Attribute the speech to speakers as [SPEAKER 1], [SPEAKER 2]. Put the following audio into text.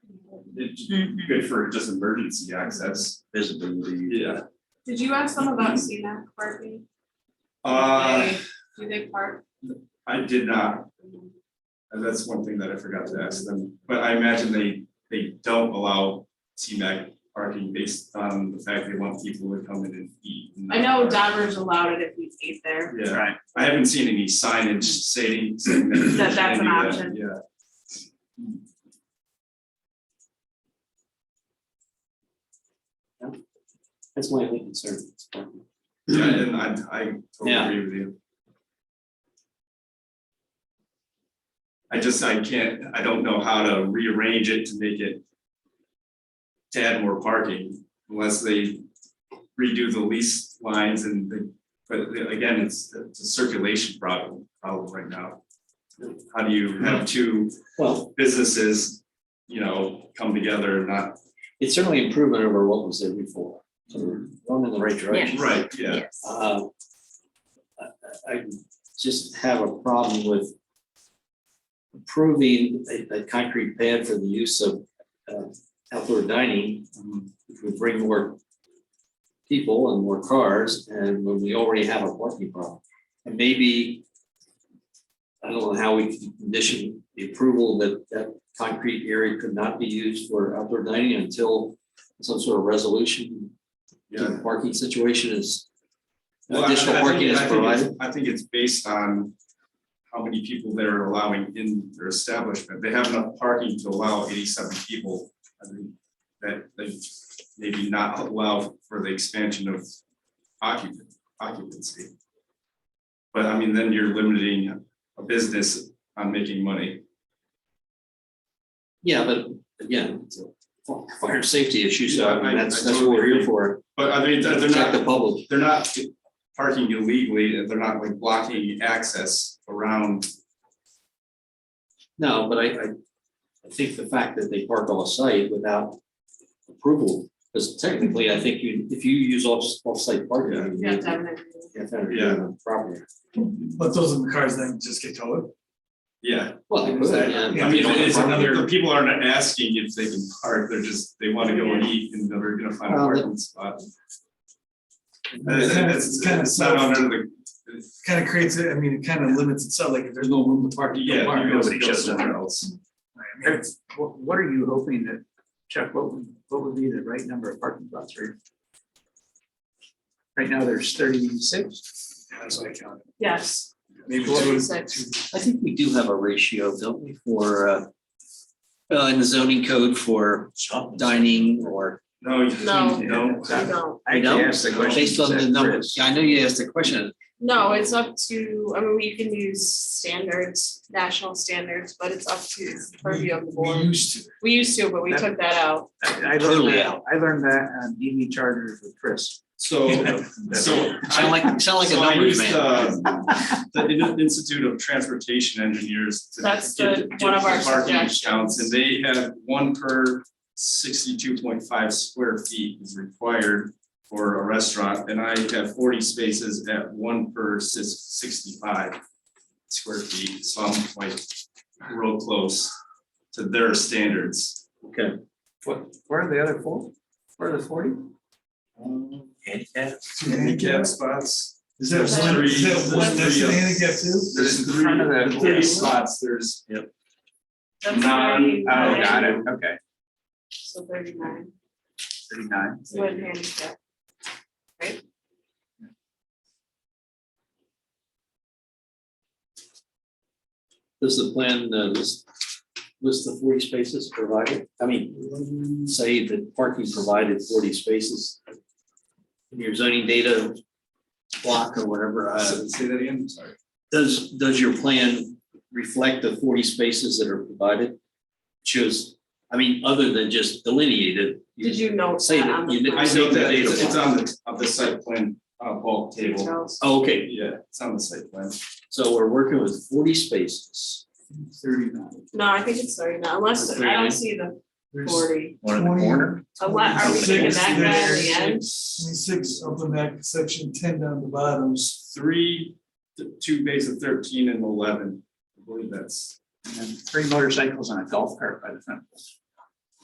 [SPEAKER 1] it'd be good for just emergency access. Uh,
[SPEAKER 2] visibility.
[SPEAKER 1] Yeah.
[SPEAKER 3] Did you ask them about CMAC parking?
[SPEAKER 1] Uh,
[SPEAKER 3] Do they park?
[SPEAKER 1] I did not, and that's one thing that I forgot to ask them, but I imagine they, they don't allow T-Mac parking based on the fact they want people to come in and eat. and not
[SPEAKER 3] I know
[SPEAKER 1] park.
[SPEAKER 3] Dodgers allowed it if we ate there.
[SPEAKER 1] Yeah.
[SPEAKER 2] Right.
[SPEAKER 1] I haven't seen any signage saying. saying that you
[SPEAKER 3] That that's an
[SPEAKER 1] can't do that,
[SPEAKER 3] option.
[SPEAKER 1] Yeah.
[SPEAKER 4] That's my only concern. It's parking.
[SPEAKER 1] Yeah, and I, I totally
[SPEAKER 2] Yeah.
[SPEAKER 1] agree with you. I just, I can't, I don't know how to rearrange it to make it to add more parking unless they redo the lease lines and the, but again, it's, it's a circulation problem, problem right now. How do you have two
[SPEAKER 4] Well,
[SPEAKER 1] businesses, you know, come together and not,
[SPEAKER 4] it's certainly improvement over what was there before. So we're going in the right direction.
[SPEAKER 1] right, yeah.
[SPEAKER 5] Yes.
[SPEAKER 4] Uh, I, I- I just have a problem with approving a, a concrete pad for the use of, uh, outdoor dining. um, If we bring more people and more cars and when we already have a parking problem. And maybe, I don't know how we can condition the approval that that concrete area could not be used for outdoor dining until some sort of resolution to
[SPEAKER 1] Yeah.
[SPEAKER 4] the parking situation is
[SPEAKER 1] Well, I- I
[SPEAKER 4] additional
[SPEAKER 1] think-
[SPEAKER 4] parking is
[SPEAKER 1] I think it's-
[SPEAKER 4] provided.
[SPEAKER 1] I think it's based on how many people they're allowing in their establishment. They have enough parking to allow eighty-seven people. I think that they maybe not allow for the expansion of occupant, occupancy. But I mean, then you're limiting a business on making money.
[SPEAKER 4] Yeah, but again, it's a fi- fire safety issue, so
[SPEAKER 1] Yeah,
[SPEAKER 4] I
[SPEAKER 1] I-
[SPEAKER 4] mean, that's
[SPEAKER 1] I
[SPEAKER 4] that's what we're
[SPEAKER 1] totally
[SPEAKER 4] here for,
[SPEAKER 1] But I mean, they're they're
[SPEAKER 4] protect the
[SPEAKER 1] not,
[SPEAKER 4] public.
[SPEAKER 1] they're not parking illegally, they're not like blocking access around.
[SPEAKER 4] No, but I I I think the fact that they park off site without approval, because technically, I think you, if you use off offsite parking.
[SPEAKER 1] Yeah.
[SPEAKER 3] You have to have an agreement.
[SPEAKER 4] You have to have it
[SPEAKER 1] Yeah.
[SPEAKER 4] on property.
[SPEAKER 6] But those are the cars that just get towed.
[SPEAKER 1] Yeah,
[SPEAKER 4] Well, they could, yeah.
[SPEAKER 1] I mean,
[SPEAKER 4] You don't
[SPEAKER 1] it's
[SPEAKER 4] have property.
[SPEAKER 1] another, the people aren't asking if they can park, they're just, they wanna go and eat and they're gonna find a
[SPEAKER 4] Well,
[SPEAKER 1] parking spot. And
[SPEAKER 6] It's
[SPEAKER 1] It's,
[SPEAKER 6] kind of-
[SPEAKER 1] it's-
[SPEAKER 6] it's kind of
[SPEAKER 1] it's not
[SPEAKER 6] self-
[SPEAKER 1] under the, it's-
[SPEAKER 6] Kind of creates, it. I mean, it kind of limits itself, like if there's no room to park, you
[SPEAKER 1] yeah,
[SPEAKER 6] don't park.
[SPEAKER 1] you go
[SPEAKER 6] Nobody
[SPEAKER 1] go
[SPEAKER 6] shows up.
[SPEAKER 1] somewhere else.
[SPEAKER 7] What, what are you hoping that, Chuck, what would, what would be the right number of parking spots for? you? Right now, there's thirty-six,
[SPEAKER 6] That's what I count.
[SPEAKER 3] Yes.
[SPEAKER 6] Maybe two.
[SPEAKER 3] Forty-six.
[SPEAKER 4] I think we do have a ratio, don't we, for uh uh, in the zoning code for dining or
[SPEAKER 1] No, you
[SPEAKER 3] No.
[SPEAKER 1] can't, no.
[SPEAKER 7] Yeah.
[SPEAKER 3] No,
[SPEAKER 7] I
[SPEAKER 4] No,
[SPEAKER 7] actually asked the question.
[SPEAKER 4] Based on the
[SPEAKER 7] that
[SPEAKER 4] numbers,
[SPEAKER 7] Chris-
[SPEAKER 4] Yeah, I know you asked the question,
[SPEAKER 3] no, it's up to, I mean, we can use standards, national standards, but it's up to the purview of the
[SPEAKER 6] We
[SPEAKER 3] board.
[SPEAKER 6] used to.
[SPEAKER 3] We used to, but we took that out.
[SPEAKER 7] I I learned
[SPEAKER 4] Totally
[SPEAKER 7] that, I learned that on E EV chargers with Chris.
[SPEAKER 1] So, so. I-
[SPEAKER 4] sound like, sound like a
[SPEAKER 1] so I
[SPEAKER 4] numbers
[SPEAKER 1] used,
[SPEAKER 4] man.
[SPEAKER 1] uh, The In- Institute of Transportation Engineers. to
[SPEAKER 3] That's
[SPEAKER 1] get-
[SPEAKER 3] the-
[SPEAKER 1] get
[SPEAKER 3] one of
[SPEAKER 1] the
[SPEAKER 3] our
[SPEAKER 1] Parking
[SPEAKER 3] suggestions.
[SPEAKER 1] counts, and they have one per sixty-two point five square feet is required for a restaurant, and I have forty spaces at one per sis- sixty-five square feet, so I'm like real close to their standards.
[SPEAKER 4] Okay.
[SPEAKER 7] What, where are the other four? Where are the forty?
[SPEAKER 2] Handicap.
[SPEAKER 1] Handicap spots.
[SPEAKER 6] Is that
[SPEAKER 1] There's
[SPEAKER 6] one,
[SPEAKER 1] three-
[SPEAKER 6] is that
[SPEAKER 1] there's
[SPEAKER 6] one, that's
[SPEAKER 1] three
[SPEAKER 6] the
[SPEAKER 1] of-
[SPEAKER 6] handicap too?
[SPEAKER 1] There's
[SPEAKER 7] In
[SPEAKER 1] three,
[SPEAKER 7] front of that
[SPEAKER 1] the three
[SPEAKER 7] pool.
[SPEAKER 1] spots, there's
[SPEAKER 3] That's
[SPEAKER 1] Nine.
[SPEAKER 7] Oh,
[SPEAKER 3] 39.
[SPEAKER 7] got it, okay,
[SPEAKER 3] So thirty-nine,
[SPEAKER 7] thirty-nine.
[SPEAKER 3] it's what handicap.
[SPEAKER 4] Does the plan uh, list, list the forty spaces provided? I mean, say that parking provided forty spaces. in Your zoning data block or whatever, uh,
[SPEAKER 1] Say that again, sorry.
[SPEAKER 4] does, does your plan reflect the forty spaces that are provided? Shows, I mean, other than just delineated.
[SPEAKER 3] Did you note
[SPEAKER 4] Say
[SPEAKER 3] that
[SPEAKER 4] that
[SPEAKER 3] on
[SPEAKER 4] you
[SPEAKER 3] the
[SPEAKER 4] did-
[SPEAKER 1] I
[SPEAKER 3] plan?
[SPEAKER 1] know that it's it's on the, on the site plan, uh, bulk table.
[SPEAKER 3] Details.
[SPEAKER 4] Oh, Okay,
[SPEAKER 1] Yeah, it's on the site plan.
[SPEAKER 4] so we're working with forty spaces.
[SPEAKER 7] Thirty-nine.
[SPEAKER 3] No, I think it's thirty-nine, unless, I don't see the
[SPEAKER 6] There's
[SPEAKER 3] forty.
[SPEAKER 2] One in the
[SPEAKER 6] Twenty.
[SPEAKER 2] corner.
[SPEAKER 3] Unless, are we taking
[SPEAKER 6] Six,
[SPEAKER 3] that guy in the end?
[SPEAKER 6] twenty-six up in that section, ten down the bottom.
[SPEAKER 1] There's three, th- two bays of thirteen and eleven. I believe that's,
[SPEAKER 7] And then three motorcycles and a golf cart by the front.